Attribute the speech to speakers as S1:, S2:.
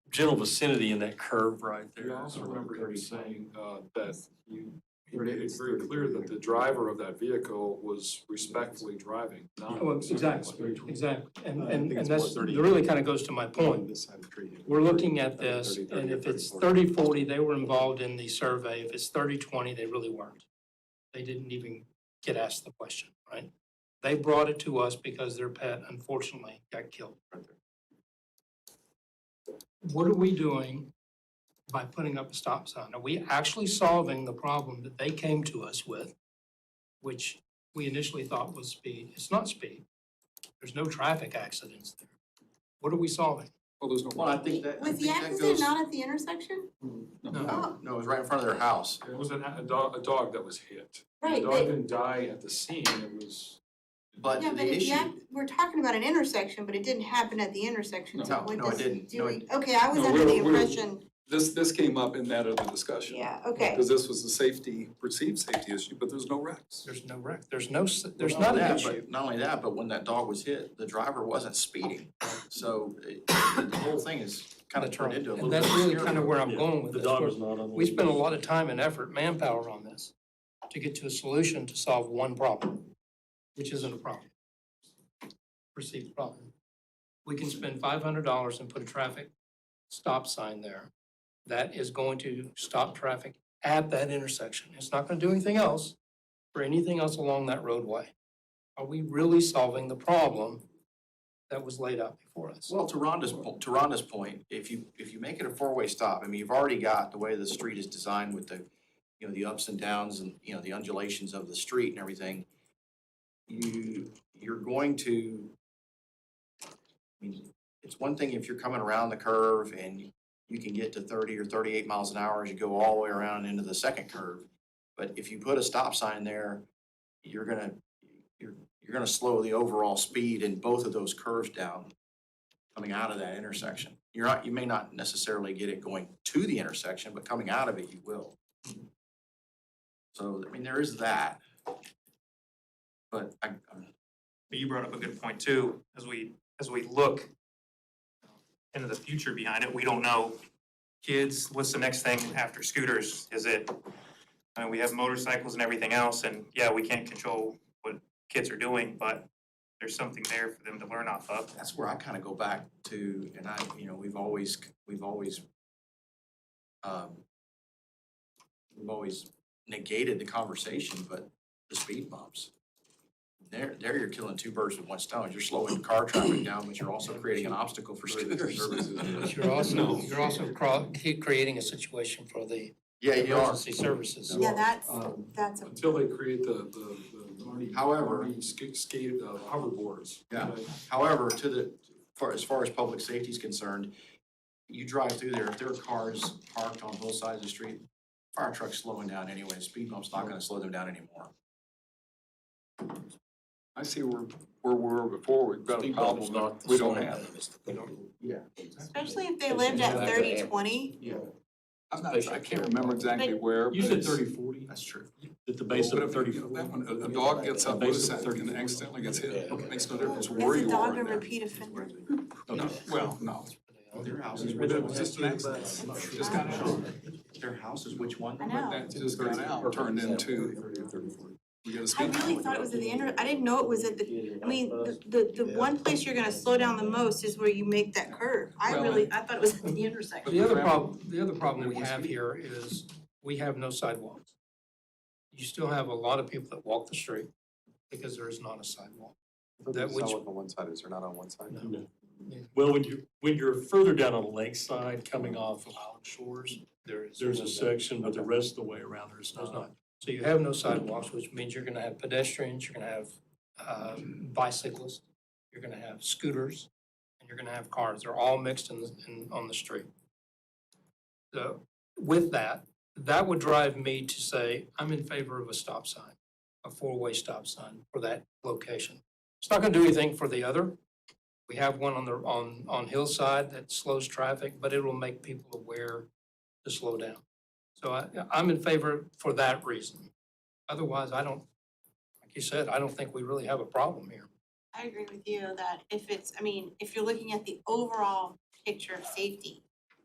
S1: general vicinity in that curve right there.
S2: I also
S1: So,
S2: remember him saying uh, that he made it very clear that the driver of that vehicle was respectfully driving,
S3: Oh,
S2: not.
S4: Well, exactly, exactly. And,
S5: Uh, I
S4: and,
S5: think
S4: and
S5: it's
S4: that's, that
S5: 130.
S4: really kind of goes to my point.
S5: This side of the tree.
S4: We're looking at this,
S5: 30, 30,
S4: and if it's
S5: 40.
S4: thirty, forty, they were involved in the survey. If it's thirty, twenty, they really weren't. They didn't even get asked the question, right? They brought it to us because their pet unfortunately got killed. What are we doing by putting up a stop sign? Are we actually solving the problem that they came to us with? Which we initially thought was speed. It's not speed. There's no traffic accidents there. What are we solving?
S2: Well, there's no.
S6: Well, I think that, I
S7: Was the
S6: think that
S7: accident
S6: goes.
S7: not at the intersection? Oh.
S6: No, no, it was right in front of their house.
S2: It was an- a dog, a dog that was hit.
S7: Right,
S2: The dog
S7: but,
S2: didn't die at the scene, it was.
S6: But-
S7: yeah,
S6: the
S7: but if
S6: issue-
S7: the, ac- we're talking about an intersection, but it didn't happen at the intersection, so
S6: No,
S7: what
S6: no, it
S7: does
S6: didn't.
S7: do
S6: No,
S7: we- Okay, I was
S3: No,
S7: under the
S3: we're- we're-
S7: impression,
S3: This, this came up in that other discussion.
S7: yeah, okay.
S3: Because this was a safety, perceived safety issue, but there's no wrecks.
S4: There's no wreck, there's no, s- there's
S6: Well,
S4: not an
S6: that, but
S4: issue.
S6: Not only that, but when that dog was hit, the driver wasn't speeding. So it- the whole thing is kind of turned into a little
S4: And
S6: bit.
S4: that's
S6: of a
S4: really
S6: scare
S4: kind of where I'm
S1: Yeah,
S4: going with
S1: The
S4: this.
S1: dog
S4: We're-
S1: was not on.
S4: We spent a lot of time and effort, manpower on this to get to a solution to solve one problem, which isn't a problem. Perceived problem. We can spend five hundred dollars and put a traffic stop sign there. That is going to stop traffic at that intersection. It's not gonna do anything else or anything else along that roadway. Are we really solving the problem that was laid out before us?
S6: Well, to Rhonda's, po- to Rhonda's point, if you, if you make it a four-way stop, I mean, you've already got the way the street is designed with the, you know, the ups and downs and, you know, the undulations of the street and everything. You, you're going to, I mean, it's one thing if you're coming around the curve and you can get to thirty or thirty-eight miles an hour as you go all the way around into the second curve. But if you put a stop sign there, you're gonna, you're, you're gonna slow the overall speed in both of those curves down coming out of that intersection. You're not, you may not necessarily get it going to the intersection, but coming out of it, you will. So, I mean, there is that. But I, I'm,
S8: But you brought up a good point too, as we, as we look into the future behind it, we don't know. Kids, what's the next thing after scooters? Is it, I mean, we have motorcycles and everything else and yeah, we can't control what kids are doing, but there's something there for them to learn off of.
S6: that's where I kind of go back to, and I, you know, we've always, we've always, um, we've always negated the conversation, but the speed bumps. There, there you're killing two birds with one stone. You're slowing car traffic down, but you're also creating an obstacle for scooters.
S4: But You're also, you're also cro- creating a situation for the
S6: Yeah, you are.
S4: emergency services.
S7: Yeah, that's,
S2: Um,
S7: that's, a-
S2: Until they create the, the, the Marty.
S6: However-
S2: Marty sk- skate, uh, hoverboards.
S6: Yeah.
S2: Right?
S6: However, to the, for, as far as public safety is concerned, you drive through there, if there are cars parked on both sides of the street, fire truck's slowing down anyway, speed bump's not gonna slow them down anymore.
S3: I see where, where we were before, we've got a problem that we don't have.
S7: especially if they lived at thirty, twenty,
S6: Yeah,
S3: I'm not, I can't remember exactly where, but
S1: You said
S3: it's-
S1: thirty, forty,
S6: that's true.
S1: at the base
S3: But
S1: of
S3: if,
S1: thirty,
S3: you know,
S1: forty.
S3: that one, a- a dog gets up,
S1: Base
S3: moves
S1: of
S3: that,
S1: 30.
S3: and accidentally gets hit, it makes no difference where
S7: is a
S3: you are
S7: dog a
S3: in there.
S7: repeat offender?
S3: No, well, no,
S6: Their houses,
S3: but it was just an accident, just got out,
S6: their houses, which one?
S7: I know.
S3: that just got out, turned into, we got a
S7: I
S3: speed.
S7: really thought it was at the inter, I didn't know it was at the, I mean, the, the, the one place you're gonna slow down the most is where you make that curve. I
S3: Well,
S7: really, I thought it was at the intersection.
S4: The other problem, the other problem we have here is we have no sidewalks. You still have a lot of people that walk the street because there is not a sidewalk. That which-
S5: on one side is, or not on one side?
S4: No.
S1: Well, when you, when you're further down on the lakeside coming off of Island Shores,
S4: There is.
S1: there's a section, but the rest of the way around there's
S4: There's
S1: not.
S4: not. So you have no sidewalks, which means you're gonna have pedestrians, you're gonna have uh, bicyclists, you're gonna have scooters, and you're gonna have cars. They're all mixed in, in, on the street. So with that, that would drive me to say, I'm in favor of a stop sign, a four-way stop sign for that location. It's not gonna do anything for the other. We have one on the, on, on Hillside that slows traffic, but it will make people aware to slow down. So I, I'm in favor for that reason. Otherwise, I don't, like you said, I don't think we really have a problem here.
S7: I agree with you that if it's, I mean, if you're looking at the overall picture of safety,